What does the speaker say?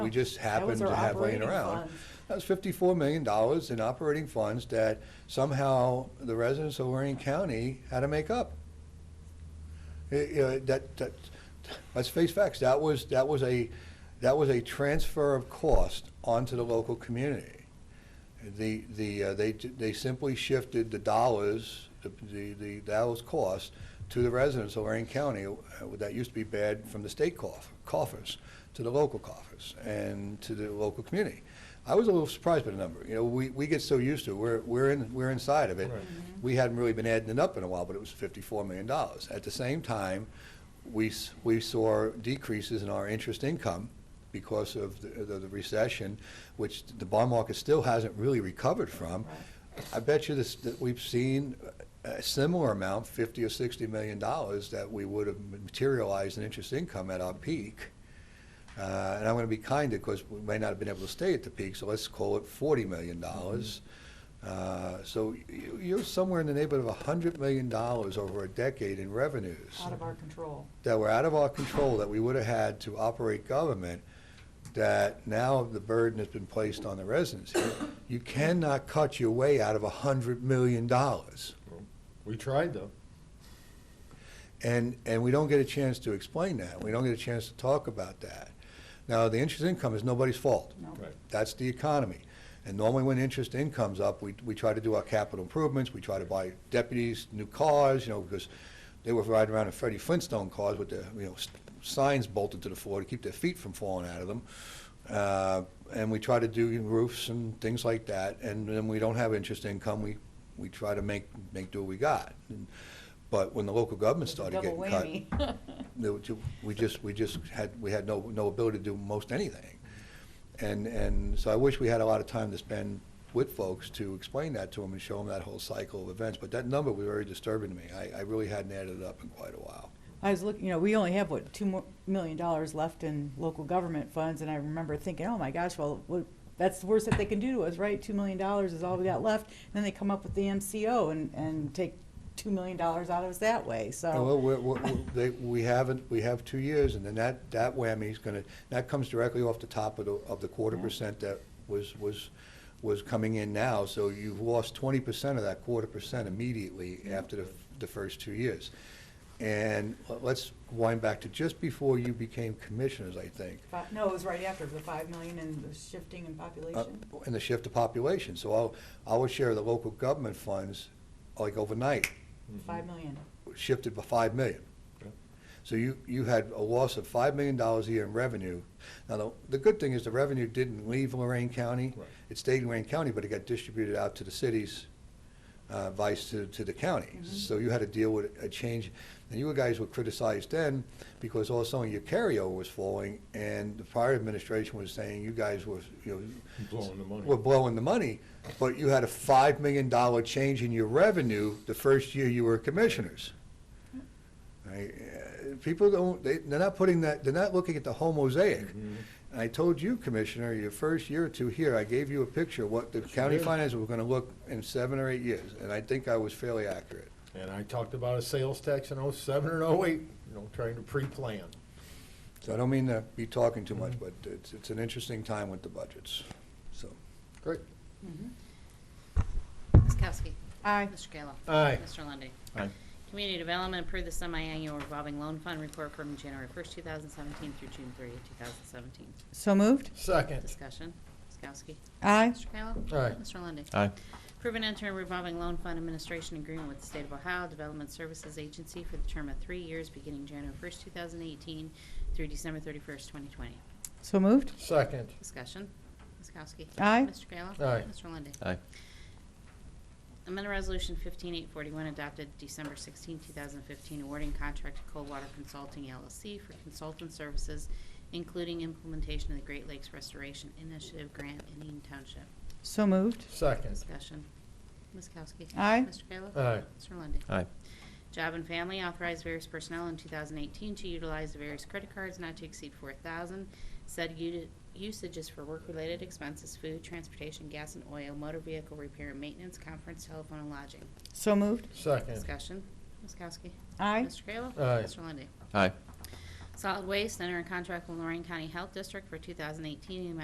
We just happened our to have laying operating around. funds. That was fifty-four million dollars in operating funds that somehow the residents of Lorraine County had to make up. Eh, you know, that, that, let's face facts, that was, that was a, that was a transfer of cost onto the local community. The, the, uh, they, they simply shifted the dollars, the, the, the those costs to the residents of Lorraine County, uh, that used to be bad from the state coff- coffers to the local coffers and to the local community. I was a little surprised by the number. You know, we, we get so used to it. We're, we're, in, we're inside of it. We hadn't really been adding it up in a while, but it was $54 million. At the same time, we, s- we saw decreases in our interest income because of the, the the recession, which the bond market still hasn't really recovered from. I bet you this, that we've seen a similar amount, 50 or 60 million dollars, that we would have materialized in interest income at our peak. Uh, And I'm going to be kind because we may not have been able to stay at the peak, so let's call it $40 million. Uh, So y- you're somewhere in the neighborhood of $100 million over a decade in revenues out of our control. that were out of our control, that we would have had to operate government, that now the burden has been placed on the residents. here. You cannot cut your way out of $100 million. We tried though. And, and we don't get a chance to explain that. We don't get a chance to talk about that. Now, the interest income is nobody's fault. No. Right. That's the economy. And normally when interest income's up, we, we try to do our capital improvements, we try to buy deputies, new cars, you know, because they were riding around in Freddie Flintstone cars with the, you know, s- signs bolted to the floor to keep their feet from falling out of them. Uh, and we try to do roofs and things like that, and then we don't have interest income, we, we try to make, make do what we got. And- But when the local government It's a started double getting cut whammy. there were two- we just, we just had, we had no, no ability to do most anything. And, and so I wish we had a lot of time to spend with folks to explain that to them and show them that whole cycle of events. But that number was very disturbing to me. I, I really hadn't added it up in quite a while. I was looking, you know, we only have, what, two mo- million dollars left in local government funds, and I remember thinking, oh my gosh, well, what, that's the worst that they can do to us, right? Two million dollars is all we got left, and then they come up with the MCO and, and take two million dollars out of us that way, so. Well, we're, we're, we're- they, we haven't, we have two years, and then that, that whammy's gonna, that comes directly off the top of the, of the quarter Yeah. percent that was, was, was coming in now, so you've lost twenty percent of that quarter percent immediately after the, the first two years. And let's wind back to just before you became commissioners, I think. Fi- No, it was right after, the five million and the shifting in population. Uh, And the shift of population, so I'll, our share of the local government funds, like overnight, Five mm-hmm. million, shifted by five million. Yep. So you, you had a loss of five million dollars a year in revenue. Now, the, the good thing is the revenue didn't leave Lorraine County. Right. It stayed in Lorraine County, but it got distributed out to the cities, uh, vice to, to the counties. So you had to deal with a change, and you guys were criticized then because all of a sudden your carryover was falling, and the prior administration was saying you guys were, you know, Blowing the money. we're blowing the money, but you had a $5 million change in your revenue the first year you were commissioners. Right, uh, People don't, they- they're not putting that, they're not looking at the whole mosaic. Mm-hmm. And I told you, Commissioner, your first year or two here, I gave you a picture of what the county did. finances were going to look in seven or eight years, and I think I was fairly accurate. And I talked about a sales tax in oh-seven and oh-eight, you know, trying to pre-plan. So I don't mean to be talking too Mm-hmm. much, but it's, it's an interesting time with the budgets, so. Great. Ms. Kowski. Aye. Mr. Kayla. Aye. Mr. Lundy. Aye. Community Development approved the semi-annual revolving loan fund report from January 1st, 2017 through June 30th, 2017. So moved? Second. Discussion. Ms. Kowski. Aye. Mr. Kayla. Aye. Mr. Lundy. Aye. Approve and enter a revolving loan fund administration agreement with the State of Ohio Development Services Agency for the term of three years beginning January 1st, 2018 through December 31st, 2020. So moved? Second. Discussion. Ms. Kowski. Aye. Mr. Kayla. Aye. Mr. Lundy. Aye. Amendment Resolution 15841 adopted December 16, 2015, awarding contract to Coldwater Consulting LLC for consultant services, including implementation of the Great Lakes Restoration Initiative Grant in Eaton Township. So moved? Second. Discussion. Ms. Kowski. Aye. Mr. Kayla. Aye. Mr. Lundey. Aye. Job and Family authorized various personnel in 2018 to utilize the various credit cards not to exceed 4,000. Said u- usage is for work-related expenses, food, transportation, gas and oil, motor vehicle repair and maintenance, conference, telephone, and lodging. So moved? Second. Discussion. Ms. Kowski. Aye. Mr. Kayla. Aye. Mr. Lundey. Aye. Solid Waste, enter a contract with Lorraine County Health District for 2018 in the amount